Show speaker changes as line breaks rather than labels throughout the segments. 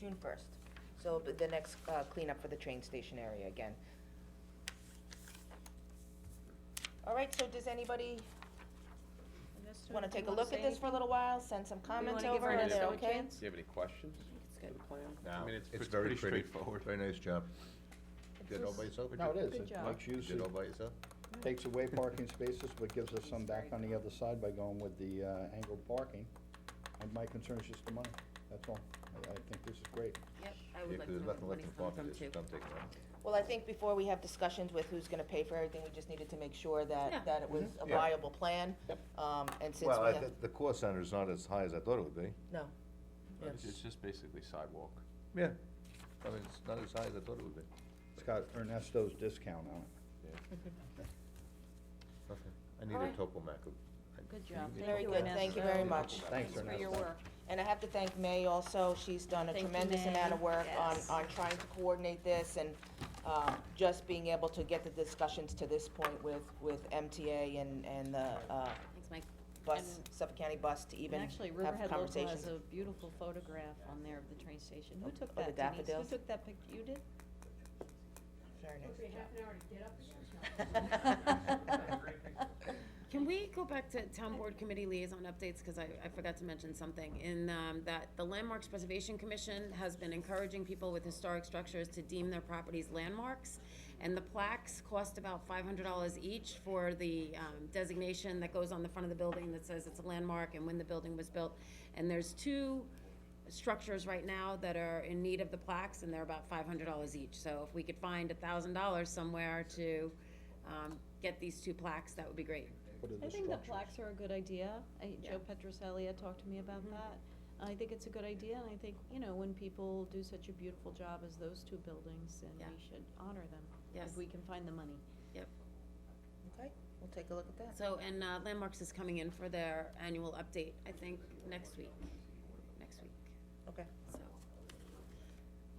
June first. So it'll be the next uh, cleanup for the train station area again. All right, so does anybody wanna take a look at this for a little while, send some comments
wanna give
over,
her
are
an
they
SO a
okay?
chance?
Do you have any questions?
It's
for
good.
the plan? I
No.
mean, it's,
It's
it's
very
pretty
pretty.
straightforward.
Very nice job.
It's
Did it all
just-
by yourself? or
No,
did-
it
Good
is. It
job.
locks
Did
use,
it all
it
by yourself?
takes away parking spaces, but gives us some back on the other side by going with the uh, angled parking. And my concern is just the money, that's all. I, I think this is great.
Yep, I
Yeah,
would like
'cause
to
there's
know where the money's
nothing left in
coming
pocket,
from
it's
too.
dumped in.
Well, I think before we have discussions with who's gonna pay for everything, we just needed to make sure
Yeah.
that, that it was a
Yeah.
viable plan. Um, and since
Well,
we
I
have,
thi- the cost center is not as high as I thought it would be.
no, Yeah.
It's it's just basically sidewalk.
Yeah. I mean, it's not as high as I thought it would be.
It's got Ernesto's discount on it.
Okay. I need a
Alright.
topo macro.
Good job.
very good, thank you very much.
Thanks,
For
Ernesto.
your work.
And I have to thank May also, she's done a
Thank you,
tremendous
May.
amount of work on,
Yes.
on trying to coordinate this and, um, just being able to get the discussions to this point with, with MTA and, and the, uh,
Thanks, Mike.
bus,
And-
Suffolk County Bus to
And
even have
actually,
conversations.
Riverhead Local has a beautiful photograph on there of the train station. Who took
Of the
that, Denise? Who
daffodils?
took that pic? You did?
Very nice job.
Can we go back to town board committee liaison updates, because I, I forgot to mention something, in, um, that the Landmarks Preservation Commission has been encouraging people with historic structures to deem their properties landmarks, and the plaques cost about five hundred dollars each for the, um, designation that goes on the front of the building that says it's a landmark and when the building was built, and there's two structures right now that are in need of the plaques, and they're about five hundred dollars each, so if we could find a thousand dollars somewhere to, um, get these two plaques, that would be great.
What are
I
the
think the
structures?
plaques are a good idea. I, Joe Petroselli had talked to me about that. I think it's a good idea, and I think, you know, when people do such a beautiful job as those two buildings, then
Yeah.
we should honor them.
Yes.
If we can find the money.
Okay, we'll take a look at that.
So, and uh, Landmarks is coming in for their annual update, I think, next week, next week,
Okay,
so.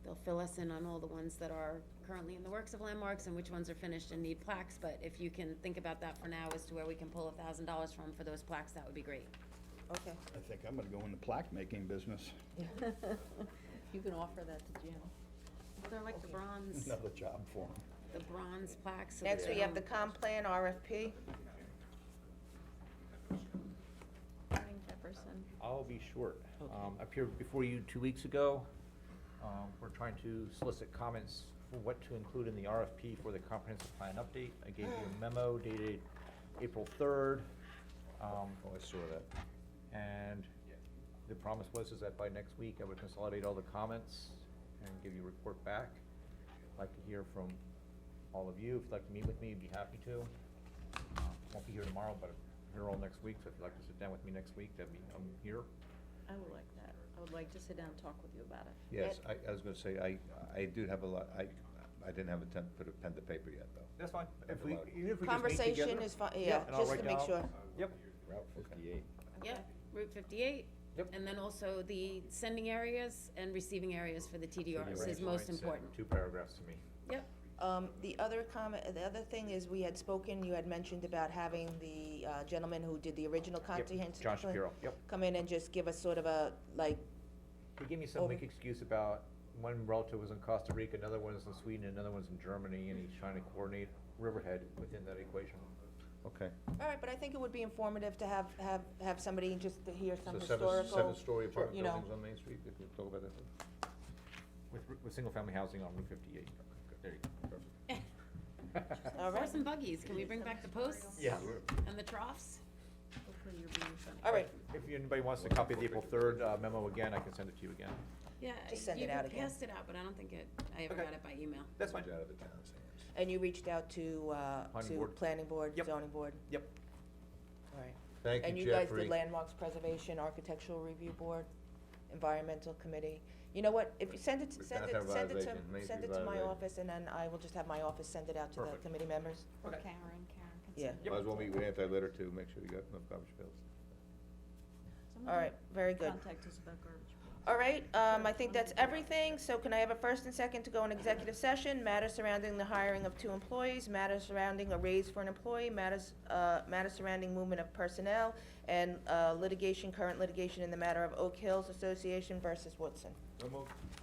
They'll fill us in on all the ones that are currently in the works of Landmarks and which ones are finished and need plaques, but if you can think about that for now as to where we can pull a thousand dollars from for those plaques, that would be great.
okay.
I think I'm gonna go in the plaque making business.
You can offer that to Jim.
They're like the bronze,
Another job for him.
the bronze plaques. so
Next,
that
we have the
they
comp plan RFP.
Morning, Jefferson.
I'll be short. Um, I appeared before you two weeks ago. Um, we're trying to solicit comments for what to include in the RFP for the comprehensive plan update. I gave you a memo dated April third. Um,
Oh, I saw that.
and the promise was is that by next week, I would consolidate all the comments and give you a report back. I'd Like to hear from all of you. If you'd like to meet with me, I'd be happy to. Uh, Won't be here tomorrow, but I'm here all next week, so if you'd like to sit down with me next week, that'd be, I'm here.
I would like that. I would like to sit down and talk with you about it.
Yes, I, I was gonna say, I, I do have a lot, I, I didn't have a time to put a pen to paper yet, though.
That's fine.
That's
If we,
allowed.
even if we just meet
Conversation
together-
is fine, yeah,
Yep, and I'll
just to
write
make
down-
sure.
Yep,
Route fifty-eight.
don't- Yep, Route fifty-eight.
Yep.
And then also the sending areas and receiving areas for the TDRs is
Right,
most
right, send
important.
Two paragraphs to me.
Yep,
Um, the other comment, the other thing is, we had spoken, you had mentioned about having the uh, gentleman who did the original
Yep,
comprehensive
John
plan
Shapiro, yep.
Come in and just give us sort of a, like,
He gave me some
Over.
weak excuse about one relative was in Costa Rica, another one is in Sweden, another one's in Germany, and he's trying to coordinate Riverhead within that equation.
Okay.
all right, but I think it would be informative to have, have, have somebody just to hear some
So seven,
historical.
seven-story apartment
you know.
buildings on Main Street, if you talk about that.
With, with single-family housing on Route fifty-eight. There you go.
All right.
Horse and buggies, can we bring back the posts?
Yeah.
And the troughs? Hopefully you're being funny.
All right,
If anybody wants to copy the April third uh, memo again, I can send it to you again.
Yeah,
Just send
you
it out again.
passed it out, but I don't think it, I ever
Okay.
got it by email.
That's fine.
Out of the town's hands.
and you reached out to, uh,
Planning
to
board.
planning board,
Yep.
zoning board?
Yep.
All right.
Thank
And
you,
you guys did
Jeffrey.
landmarks preservation, architectural review board, environmental committee. You know what, if you send it,
We've
send
got
it,
our
send it
violation,
to,
Main
send
Street
it to my
violation.
office, and then I will just have my office send it out to the
Perfect.
committee members.
Karen,
Okay.
Karen can
Yeah.
send it.
Might as well meet with anti-litter too, make sure you got enough garbage bills.
Someone
All right, very good.
Contact us about garbage.
All right, um, I think that's everything, so can I have a first and second to go in executive session? Matters surrounding the hiring of two employees, matters surrounding a raise for an employee, matters, uh, matters surrounding movement of personnel, and, uh, litigation, current litigation in the matter of Oak Hills Association versus Woodson.